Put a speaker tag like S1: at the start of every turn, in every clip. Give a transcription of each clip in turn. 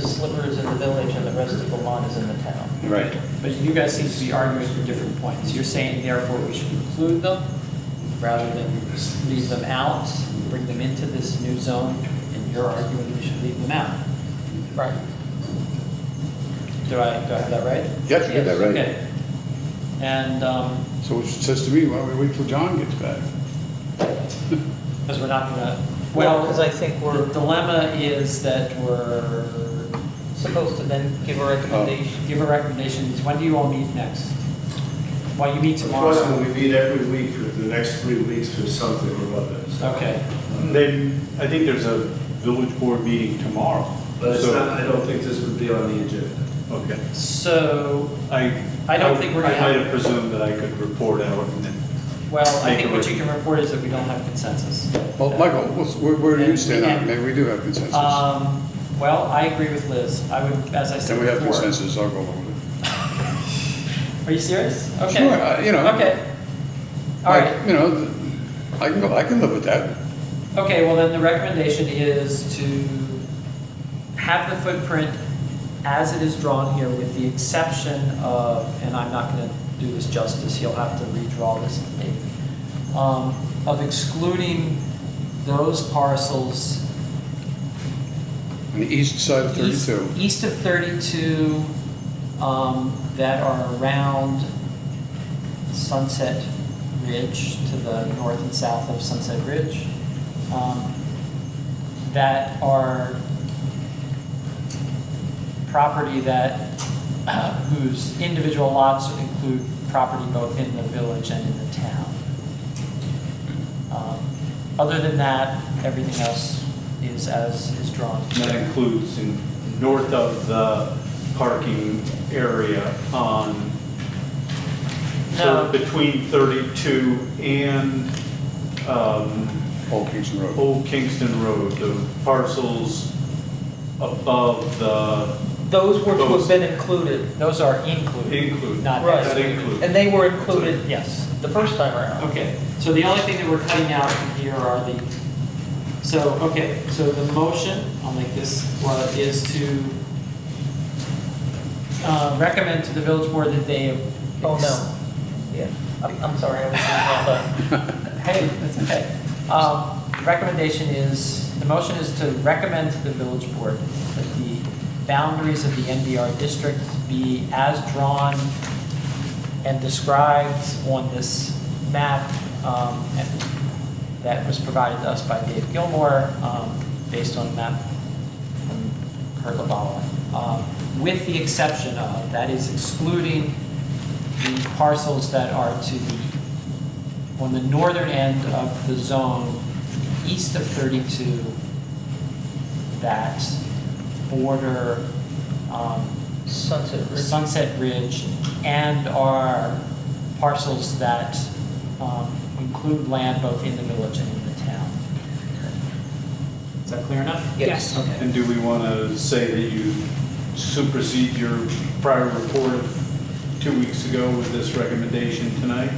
S1: sliver is in the village and the rest of the lot is in the town.
S2: Right.
S3: But you guys seem to be arguing for different points. You're saying therefore we should include them rather than just leave them out, bring them into this new zone, and you're arguing we should leave them out. Right. Do I, do I have that right?
S4: Yes, you got that right.
S3: Okay. And, um,
S4: So it says to me, why don't we wait till John gets back?
S3: because we're not gonna,
S1: Well,
S3: well,
S1: because I think
S3: the
S1: we're
S3: dilemma is that we're, Oh,
S1: supposed to then give a recommendation.
S3: give a recommendation, when do you all meet next? Well, you meet tomorrow.
S5: Unfortunately, we meet every week for the next three weeks for something or other. so-
S3: Okay.
S6: Then, I think there's a village board meeting tomorrow.
S5: But it's
S6: So-
S5: not, I don't think this would be on the agenda.
S6: Okay.
S3: So,
S6: I.
S3: I don't think we're gonna
S6: I might
S3: have-
S6: have presumed that I could report out and then.
S3: well, I
S6: Make
S3: think
S6: a
S3: what you can report is that we don't have consensus.
S4: Well, Michael, what's- where, where do you stand on it? Maybe we do have consensus. Then
S3: Um, well, I agree with Liz. I would, as I said
S4: we have
S3: before.
S4: consensus, I'll go along with
S3: Are you serious?
S4: it.
S3: Okay.
S4: Sure, I- you know.
S3: Okay. All
S4: like,
S3: right.
S4: You know, th- I can go, I can live with that.
S3: Okay, well then the recommendation is to have the footprint as it is drawn here with the exception of, and I'm not gonna do this justice, he'll have to redraw this and make, um, of excluding those parcels
S4: On the east side of
S3: east,
S4: 32.
S3: east of 32, um, that are around Sunset Ridge, to the north and south of Sunset Ridge, um, that are property that, whose individual lots include property both in the village and in the town. Um, Other than that, everything else is as is drawn.
S6: And That includes in north of the parking area on,
S3: No.
S6: so between 32 and um,
S4: Old Kingston Road.
S6: Old Kingston Road, the parcels above the
S1: Those were to have
S6: Those.
S1: been included,
S3: Those are included,
S6: include.
S3: not
S1: Right.
S6: That
S3: excluded.
S6: includes.
S1: and they were included
S3: Yes.
S1: the first time around.
S3: Okay, so the only thing that we're cutting out from here are the, so, okay, so the motion, I'll make this, one, is to uh, recommend to the village board that they.
S1: Oh, no. Yeah, I'm, I'm sorry, I was doing that,
S3: Hey, that's okay. Um, Recommendation is, the motion is to recommend to the village board that the boundaries of the NBR district be as drawn and described on this map um, and that was provided to us by Dave Gilmore, um, based on a map from Kurt LaBala, um, with the exception of, that is excluding the parcels that are to the, on the northern end of the zone, east of 32, that border um,
S1: but Sunset Ridge.
S3: Sunset Ridge and are parcels that um, include land both in the village and in the town. Is that clear enough?
S1: Yes.
S3: Okay.
S6: And do we want to say that you supersede your prior report of two weeks ago with this recommendation tonight?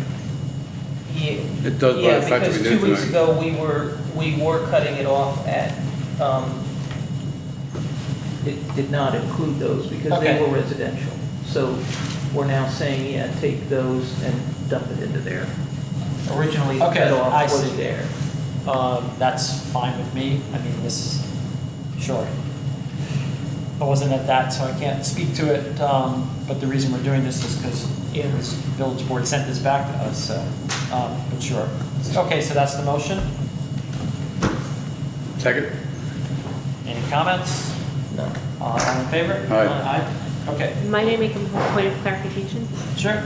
S1: Yeah.
S4: It does by the fact that we did
S1: Yeah, because
S4: it
S1: two weeks
S4: tonight.
S1: ago, we were, we were cutting it off at, um, it did not include those because they
S3: Okay.
S1: were residential. So we're now saying, yeah, take those and dump it into there. Originally, the
S3: Okay,
S1: cutoff
S3: I
S1: was
S3: see.
S1: there.
S3: Um, That's fine with me. I mean, this, sure. I wasn't at that, so I can't speak to it, um, but the reason we're doing this is because
S1: Yeah.
S3: this village board sent this back to us, so, um, but sure. Okay, so that's the motion.
S4: Second?
S3: Any comments?
S1: No.
S3: Uh, All in favor?
S4: Aye.
S3: Aye. Okay,
S7: Might I make a point of clarification
S3: sure.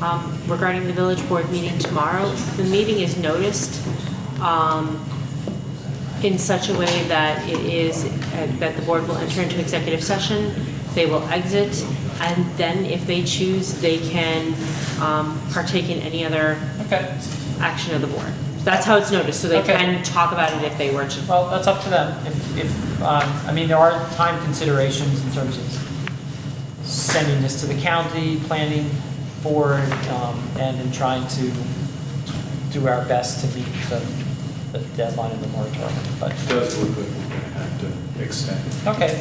S7: um, regarding the village board meeting tomorrow? The meeting is noticed um, in such a way that it is, uh, that the board will enter into executive session, they will exit, and then if they choose, they can um, partake in any other
S3: Okay,
S7: action of the board. That's how it's noticed, so they
S3: Okay.
S7: can talk about it if they were to.
S3: well, that's up to them. If, if, um, I mean, there are time considerations in terms of sending this to the county planning board, um, and in trying to do our best to meet the, the deadline of the moratorium, but,
S6: Does look like we're going to have to extend it.
S3: okay.